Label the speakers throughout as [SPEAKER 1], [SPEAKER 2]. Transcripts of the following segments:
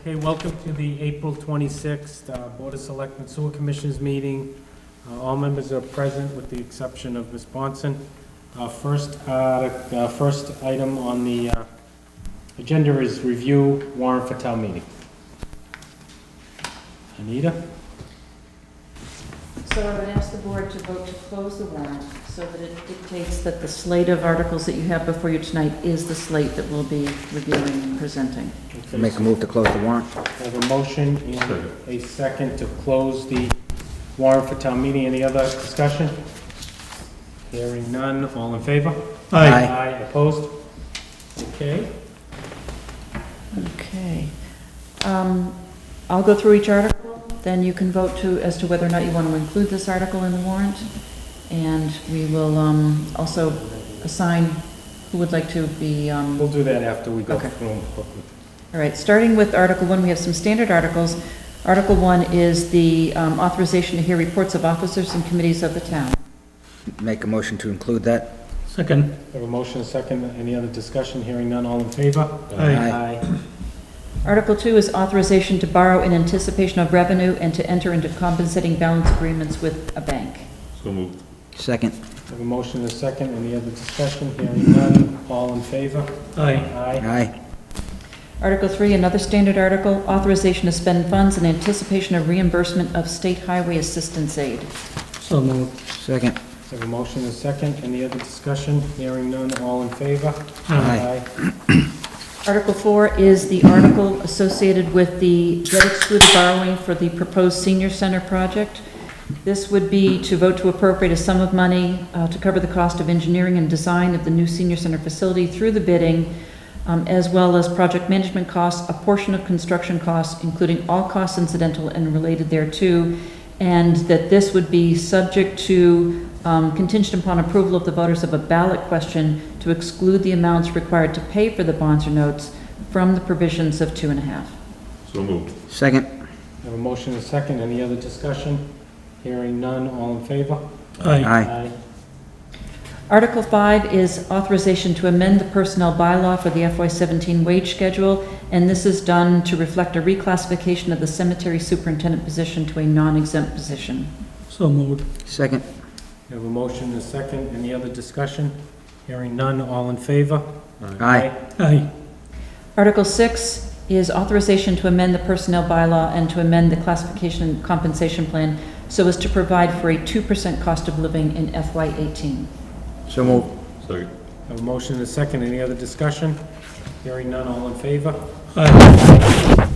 [SPEAKER 1] Okay, welcome to the April 26th uh, Board of Selectmen Sewer Commissioners meeting. Uh, All members are present with the exception of Ms. Bonson. Uh, First, uh, the first item on the uh, agenda is review warrant for town meeting. Anita?
[SPEAKER 2] So I would ask the board to vote to close the warrant so that it dictates that the slate of articles that you have before you tonight is the slate that we'll be reviewing and presenting.
[SPEAKER 1] Okay,
[SPEAKER 3] Make a move to close the warrant.
[SPEAKER 1] I have a motion and a second to close the warrant for town meeting. Any other discussion? Hearing none, all in favor?
[SPEAKER 3] Aye.
[SPEAKER 1] Aye, opposed? Okay,
[SPEAKER 2] Okay. Um, I'll go through each article, then you can vote to, as to whether or not you want to include this article in the warrant. And we will um, also assign who would like to be um,
[SPEAKER 1] we'll do that after we go
[SPEAKER 2] Okay.
[SPEAKER 1] through them quickly.
[SPEAKER 2] All right, starting with Article 1, we have some standard articles. Article 1 is the um, authorization to hear reports of officers and committees of the town.
[SPEAKER 3] Make a motion to include that.
[SPEAKER 4] Second.
[SPEAKER 1] I have a motion, a second, any other discussion? Hearing none, all in favor?
[SPEAKER 4] Aye.
[SPEAKER 3] Aye.
[SPEAKER 2] Article 2 is authorization to borrow in anticipation of revenue and to enter into compensating balance agreements with a bank.
[SPEAKER 4] So moved.
[SPEAKER 3] Second.
[SPEAKER 1] I have a motion, a second, any other discussion? Hearing none, all in favor?
[SPEAKER 4] Aye.
[SPEAKER 1] Aye.
[SPEAKER 3] Aye.
[SPEAKER 2] Article 3, another standard article, authorization to spend funds in anticipation of reimbursement of state highway assistance aid.
[SPEAKER 4] So moved.
[SPEAKER 3] Second.
[SPEAKER 1] I have a motion, a second, any other discussion? Hearing none, all in favor?
[SPEAKER 3] Aye.
[SPEAKER 2] Article 4 is the article associated with the debt excluded borrowing for the proposed senior center project. This would be to vote to appropriate a sum of money uh, to cover the cost of engineering and design of the new senior center facility through the bidding, um, as well as project management costs, a portion of construction costs, including all costs incidental and related thereto, and that this would be subject to um, contingent upon approval of the voters of a ballot question to exclude the amounts required to pay for the bonds or notes from the provisions of two and a half.
[SPEAKER 4] So moved.
[SPEAKER 3] Second.
[SPEAKER 1] I have a motion, a second, any other discussion? Hearing none, all in favor?
[SPEAKER 4] Aye.
[SPEAKER 3] Aye.
[SPEAKER 2] Article 5 is authorization to amend the personnel bylaw for the FY17 wage schedule, and this is done to reflect a reclassification of the cemetery superintendent position to a non-exempt position.
[SPEAKER 4] So moved.
[SPEAKER 3] Second.
[SPEAKER 1] I have a motion, a second, any other discussion? Hearing none, all in favor?
[SPEAKER 3] Aye.
[SPEAKER 4] Aye.
[SPEAKER 2] Article 6 is authorization to amend the personnel bylaw and to amend the classification and compensation plan so as to provide for a 2% cost of living in FY18.
[SPEAKER 3] So move.
[SPEAKER 4] Second.
[SPEAKER 1] I have a motion, and a second, any other discussion? Hearing none, all in favor?
[SPEAKER 4] Aye.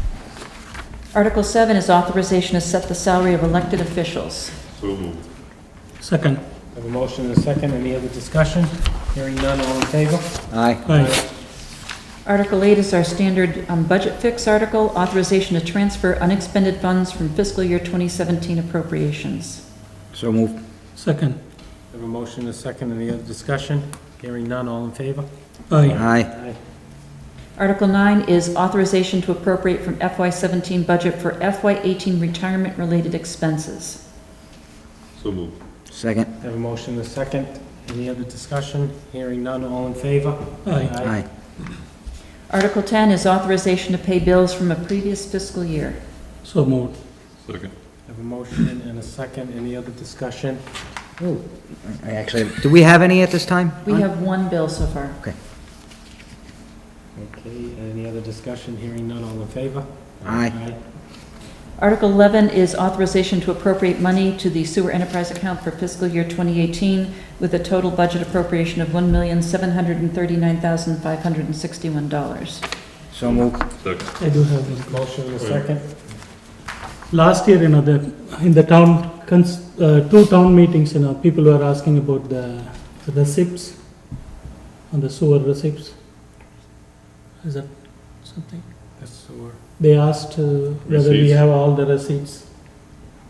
[SPEAKER 2] Article 7 is authorization to set the salary of elected officials.
[SPEAKER 4] So moved. Second.
[SPEAKER 1] I have a motion, and a second, any other discussion? Hearing none, all in favor?
[SPEAKER 3] Aye.
[SPEAKER 4] Aye.
[SPEAKER 2] Article 8 is our standard um, budget fix article, authorization to transfer unexpended funds from fiscal year 2017 appropriations.
[SPEAKER 3] So move.
[SPEAKER 4] Second.
[SPEAKER 1] I have a motion, and a second, any other discussion? Hearing none, all in favor?
[SPEAKER 4] Aye.
[SPEAKER 3] Aye.
[SPEAKER 2] Article 9 is authorization to appropriate from FY17 budget for FY18 retirement-related expenses.
[SPEAKER 4] So moved.
[SPEAKER 3] Second.
[SPEAKER 1] I have a motion, and a second, any other discussion? Hearing none, all in favor?
[SPEAKER 4] Aye.
[SPEAKER 3] Aye.
[SPEAKER 2] Article 10 is authorization to pay bills from a previous fiscal year.
[SPEAKER 4] So moved. Second.
[SPEAKER 1] I have a motion and a second, any other discussion?
[SPEAKER 3] Ooh, I actually, do we have any at this time?
[SPEAKER 2] We have one bill so far.
[SPEAKER 1] Okay, any other discussion? Hearing none, all in favor?
[SPEAKER 3] Aye.
[SPEAKER 2] Article 11 is authorization to appropriate money to the sewer enterprise account for fiscal year 2018 with a total budget appropriation of $1,739,561.
[SPEAKER 3] So move.
[SPEAKER 4] I do have one.
[SPEAKER 1] Motion in a second.
[SPEAKER 4] Last year, you know, the, in the town, cons- uh, two town meetings, you know, people were asking about the receipts, on the sewer receipts. Is that something?
[SPEAKER 1] The sewer.
[SPEAKER 4] They asked uh, whether we
[SPEAKER 5] Receipts.
[SPEAKER 4] have all the receipts.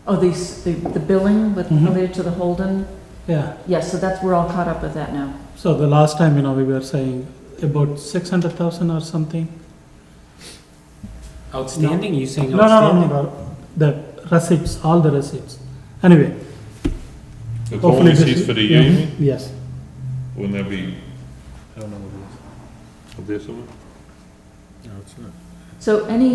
[SPEAKER 2] Oh, these- the the billing with,
[SPEAKER 4] Mhm.
[SPEAKER 2] related to the Holden?
[SPEAKER 4] Yeah.
[SPEAKER 2] Yes, so that's, we're all caught up with that now.
[SPEAKER 4] So the last time, you know, we were saying about six hundred thousand or something.
[SPEAKER 1] Outstanding, you saying
[SPEAKER 4] No, no, no,
[SPEAKER 1] outstanding?
[SPEAKER 4] no, the receipts, all the receipts. Anyway,
[SPEAKER 5] The total
[SPEAKER 4] hopefully this.
[SPEAKER 5] receipts for the year, you
[SPEAKER 4] Mhm,
[SPEAKER 5] mean?
[SPEAKER 4] Yes,
[SPEAKER 5] Wouldn't that be
[SPEAKER 1] I don't know what it
[SPEAKER 5] up there somewhere?
[SPEAKER 1] is. No, it's not.
[SPEAKER 2] So any...